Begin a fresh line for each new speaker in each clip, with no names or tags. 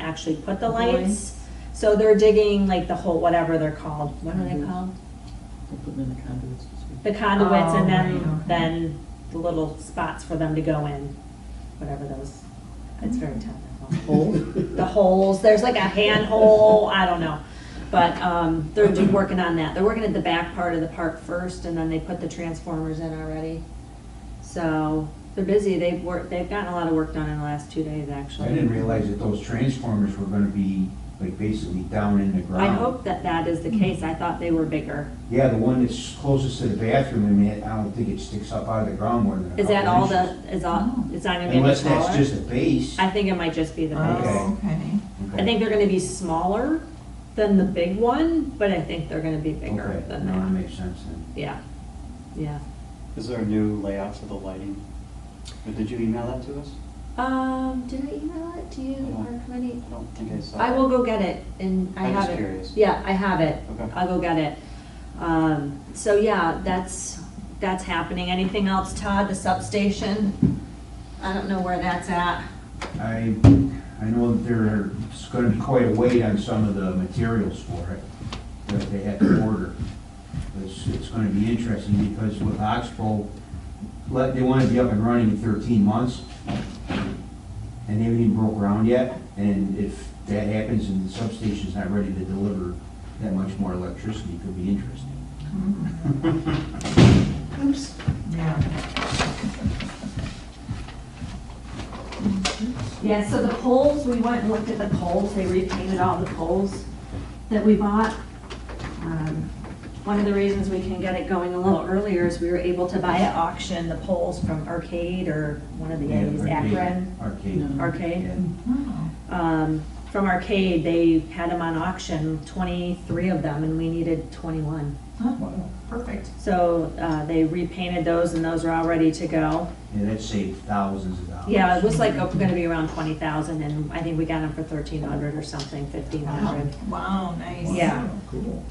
actually put the
Lights.
lights. So they're digging like the whole, whatever they're called, what are they
Mhm.
called?
Put them in the conduits.
The conduits and
Oh,
then,
right, okay.
then the little spots for them to go in, whatever those, it's very technical. The holes, there's like a handhole, I don't know. But, um, they're just working on that. They're working at the back part of the park first and then they put the transformers in already. So they're busy. They've worked, they've gotten a lot of work done in the last two days,
I
actually.
didn't realize that those transformers were gonna be like basically down in the
I
ground.
hope that that is the case. I thought they were bigger.
Yeah, the one that's closest to the bathroom, I mean, I don't think it sticks up out of the ground more than a
Is that
couple
all the,
inches.
is all, it's not gonna be any
Unless that's
smaller?
just a base.
I think it might just be the base.
Oh, okay.
I think they're gonna be smaller than the big one, but I think they're gonna be bigger than
No, that
that.
makes sense then.
Yeah, yeah.
Is there a new layout for the lighting? Or Did you email that to us?
Um, did I email it to you
No.
or committee?
I don't think I saw.
I
it.
will go get it and I
I'm
have
just
it.
curious.
Yeah, I have it.
Okay.
I'll go get it. Um, so yeah, that's, that's happening. Anything else, Todd, the substation? I don't know where that's at.
I, I know that there's gonna be quite a weight on some of the materials for it, that they had to order. It's, it's gonna be interesting because with Oxbow, let, they wanna be up and running in thirteen months. And they haven't even broke ground yet, and if that happens and the substation's not ready to deliver that much more electricity, it could be interesting.
Oops. Yeah.
Yeah, so the poles, we went and looked at the poles, they repainted all the poles that we bought. Um, One of the reasons we can get it going a little earlier is we were able to buy at auction the poles from Arcade or one of the A's,
Arcade-
Akron Mm-hmm.
Arcade.
Arcade.
yeah.
Wow.
Um, From Arcade, they had them on auction, twenty-three of them, and we needed twenty-one.
Huh, wow. Perfect.
So uh, they repainted those and those are all ready to go.
Yeah, that saved thousands of dollars.
Yeah, it was like oh, gonna be around twenty thousand and I think we got them for thirteen hundred or something, fifteen
Wow,
hundred.
Wow, nice.
Yeah.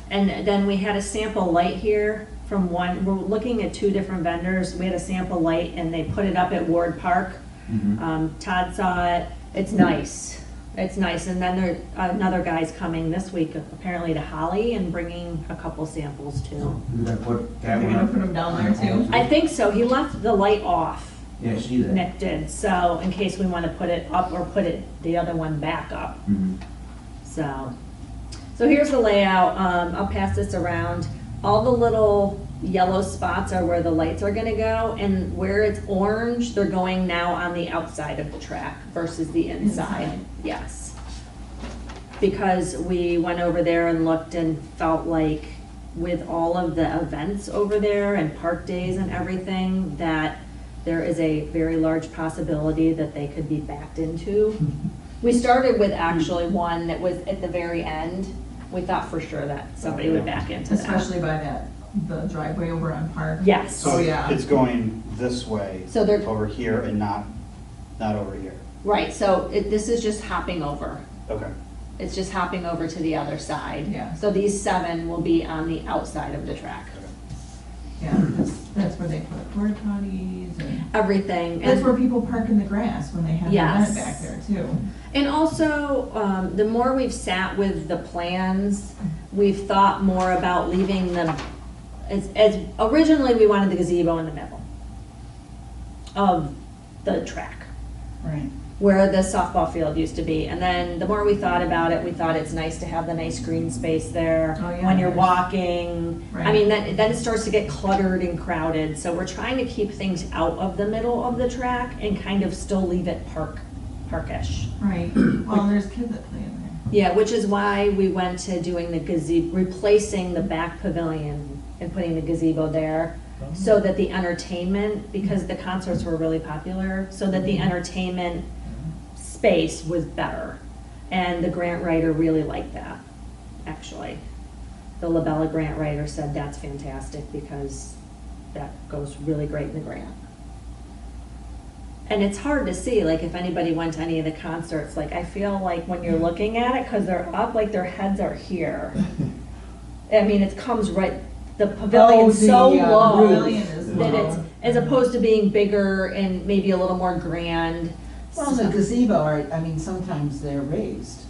And then we had a sample light here from one, we're looking at two different vendors. We had a sample light and they put it up at Ward Park.
Mhm.
Um, Todd saw it, it's nice, it's nice. And then there, another guy's coming this week apparently to Holly and bringing a couple samples too.
You're gonna put that
You're
one
gonna
up
put 'em down
on
there
the
too?
poles?
I think so, he left the light off,
Yeah, I see that.
Nick did, so in case we wanna put it up or put it, the other one back up.
Mhm.
So, so here's the layout, um, I'll pass this around. All the little yellow spots are where the lights are gonna go, and where it's orange, they're going now on the outside of the track versus the inside,
Inside.
yes. Because we went over there and looked and felt like with all of the events over there and park days and everything, that there is a very large possibility that they could be backed into.
Mm-hmm.
We started with actually one that was at the very end. We thought for sure that somebody would back into that.
Especially by that, the driveway over on Park.
Yes,
So
Oh, yeah.
it's going this way.
So they're-
Over here and not, not over here.
right, so it, this is just hopping over.
Okay.
It's just hopping over to the other side.
Yeah.
So these seven will be on the outside of the track.
Yeah, that's, that's where they put porta potties and,
Everything.
that's
and-
where people park in the grass when they have an
Yes.
event back there too.
And also, um, the more we've sat with the plans, we've thought more about leaving them, as, as, originally, we wanted the gazebo in the middle of the track.
Right.
where the softball field used to be. And then the more we thought about it, we thought it's nice to have the nice green space there
Oh, yeah,
when you're
there's-
walking. I
Right.
mean, then, then it starts to get cluttered and crowded. So we're trying to keep things out of the middle of the track and kind of still leave it park, parkish.
Right, well, there's kids that play in there.
Yeah, which is why we went to doing the gazebo, replacing the back pavilion and putting the gazebo there. So that the entertainment, because the concerts were really popular, so that the entertainment space was better. And the grant writer really liked that, actually. The Labella grant writer said that's fantastic because that goes really great in the grant. And it's hard to see, like if anybody went to any of the concerts, like I feel like when you're looking at it, cause they're up, like their heads are here. I mean, it comes right, the pavilion's
Oh, the,
so
uh,
low
pavilion is
that it's,
low.
as opposed to being bigger and maybe a little more grand.
Well, the
so-
gazebo, are- I mean, sometimes they're raised.